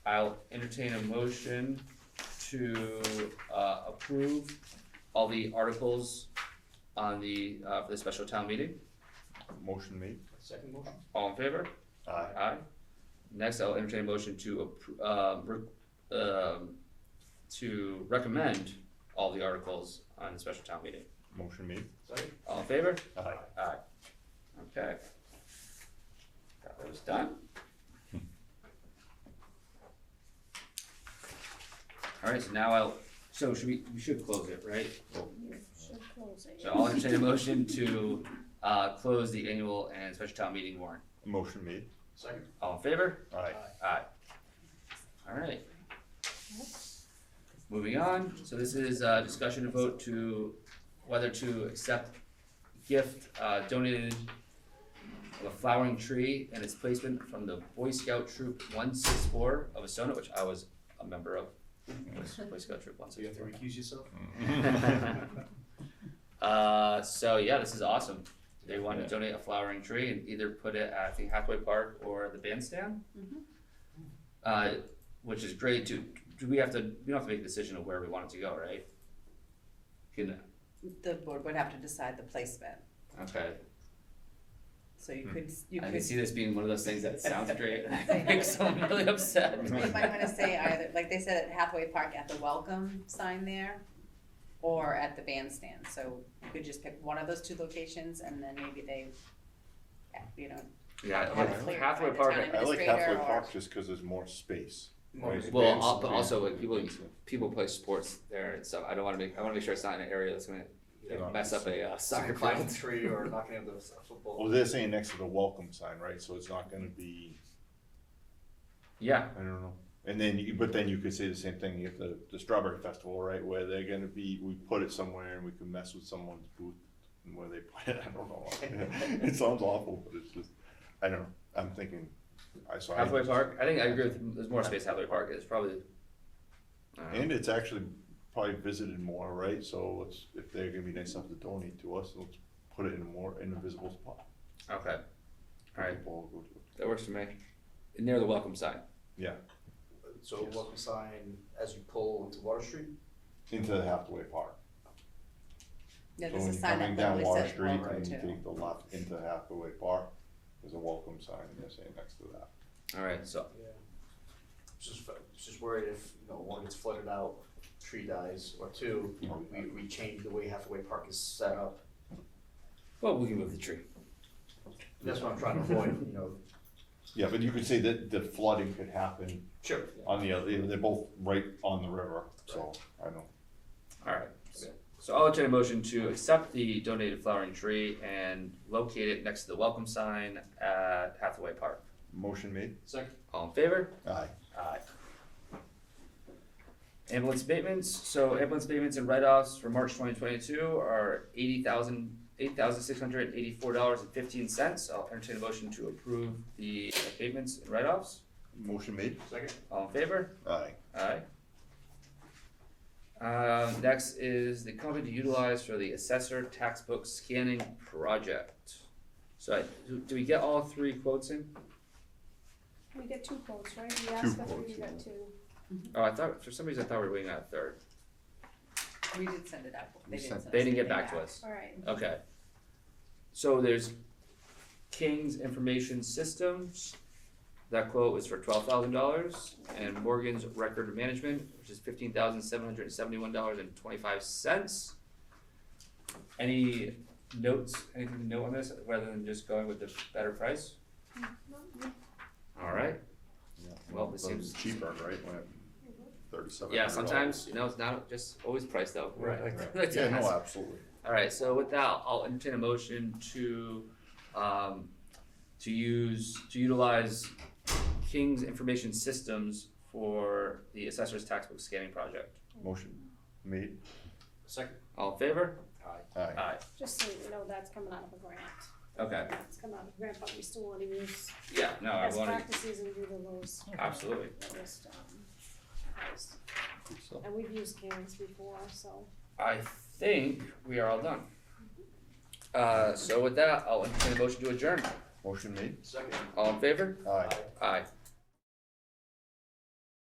I'll entertain a motion to, uh, approve all the articles on the, uh, for the special town meeting. Motion made. Second motion? All in favor? Aye. Aye. Next, I'll entertain a motion to appro- um, re- um, to recommend all the articles on the special town meeting. Motion made. Second? All in favor? Aye. Aye. Okay. Got those done. Alright, so now I'll, so should we, we should close it, right? You should close it. So I'll entertain a motion to, uh, close the annual and special town meeting warrant. Motion made. Second. All in favor? Aye. Aye. Alright. Moving on, so this is a discussion and vote to whether to accept gift uh, donated of a flowering tree and its placement from the Boy Scout Troop one six four of Asona, which I was a member of. was Boy Scout Troop one So you six have to four. recuse yourself? Uh, so yeah, this is awesome. They want to donate a flowering tree and either put it at, I think, Hathaway Park or the bandstand. Mhm. Uh, which is great too. Do we have to, we don't have to make a decision of where we want it to go, right? Can, The board would have to decide the placement, okay, so you could, you Hmm. I can could, see this being one of those things that sounds great, and I think someone really upset. you might wanna say either, like they said at Hathaway Park, at the welcome sign there, or at the bandstand, so you could just pick one of those two locations, and then maybe they, you know, Yeah, Have it like cleared Hathaway by the Park, time. I like Administrator halfway or- park just because there's more space. Motion. Right. well, al- but also when people, people play sports there and stuff, I don't wanna make, I wanna make sure it's not in an area that's gonna you know, mess up a uh, soccer Climbing field. a tree or knocking out the s- Well, football. they're saying next to the welcome sign, right? So it's not gonna be, Yeah, I don't know. And then, you but then you could say the same thing at the, the Strawberry Festival, right? Where they're gonna be, we put it somewhere and we can mess with someone's booth and where they put it, I don't know. It sounds awful, but it's just, I don't know. I'm thinking, I saw. Halfway Park, I think I agree with, there's more space Halfway Park, it's probably. uh, I don't know. And it's actually probably visited more, right? So let's, if they're gonna be nice enough to donate to us, let's put it in a more, in a visible spot. Okay, alright, People will go to it. that works for me, near the welcome sign, Yeah, So welcome sign as you pull into Water Street? into the halfway park. no, So there's when a you're sign coming that down literally Water says Street welcome and you to, take the left into halfway park, there's a welcome sign, and they're saying next to that. alright, so, Yeah. Just, fa- just worried if, you know, one gets flooded out, tree dies, or two, you know, we, we change the way halfway park is set up. well, we can move the tree. That's what I'm trying to avoid, you know. Yeah, but you could say that the flooding could happen Sure. on the other, they're both right on the river, so, I don't. Alright, so I'll entertain a motion to accept the donated flowering tree and locate it next to the welcome sign at Hathaway Park. Motion made? Second. All in favor? Aye. Aye. Ambulance abatements, so ambulance abatements and write-offs for March twenty twenty-two are eighty thousand, eight thousand six hundred eighty-four dollars and fifteen cents. I'll entertain a motion to approve the abatements and write-offs. Motion made? Second. All in favor? Aye. Aye. Um, next is the company to utilize for the assessor tax book scanning project. So I, do- do we get all three quotes in? We get two quotes, right? We asked for three, quotes, we yeah. got two. Oh, I thought, for some reason I thought we were waiting on a third. we did send it out, they We sent- didn't send us They didn't get anything back to us. Alright, Okay. So there's King's Information Systems, that quote was for twelve thousand dollars, and Morgan's Record Management, which is fifteen thousand seven hundred and seventy-one dollars and twenty-five cents. Any notes, anything to note on this, rather than just going with the better price? Alright, Well, it But seems- It's cheaper, right, when it, thirty-seven. yeah, sometimes, you know, it's not just always price though. Right. That's- Yeah, that's- no, absolutely. Alright, so with that, I'll entertain a motion to, um, to use, to utilize King's Information Systems for the assessor's tax book scanning project. Motion made? Second. All in favor? Aye. Aye. just so you know, that's coming out of a grant. Okay, It's coming out of a grant, but we still wanna use yeah, no, I best wanted, practices and do the lowest, absolutely, lowest, um, price. Good stuff. And we've used Karen's before, so. I think we are all done. Uh, so with that, I'll entertain a motion to adjourn. Motion made? Second. All in favor? Aye. Aye.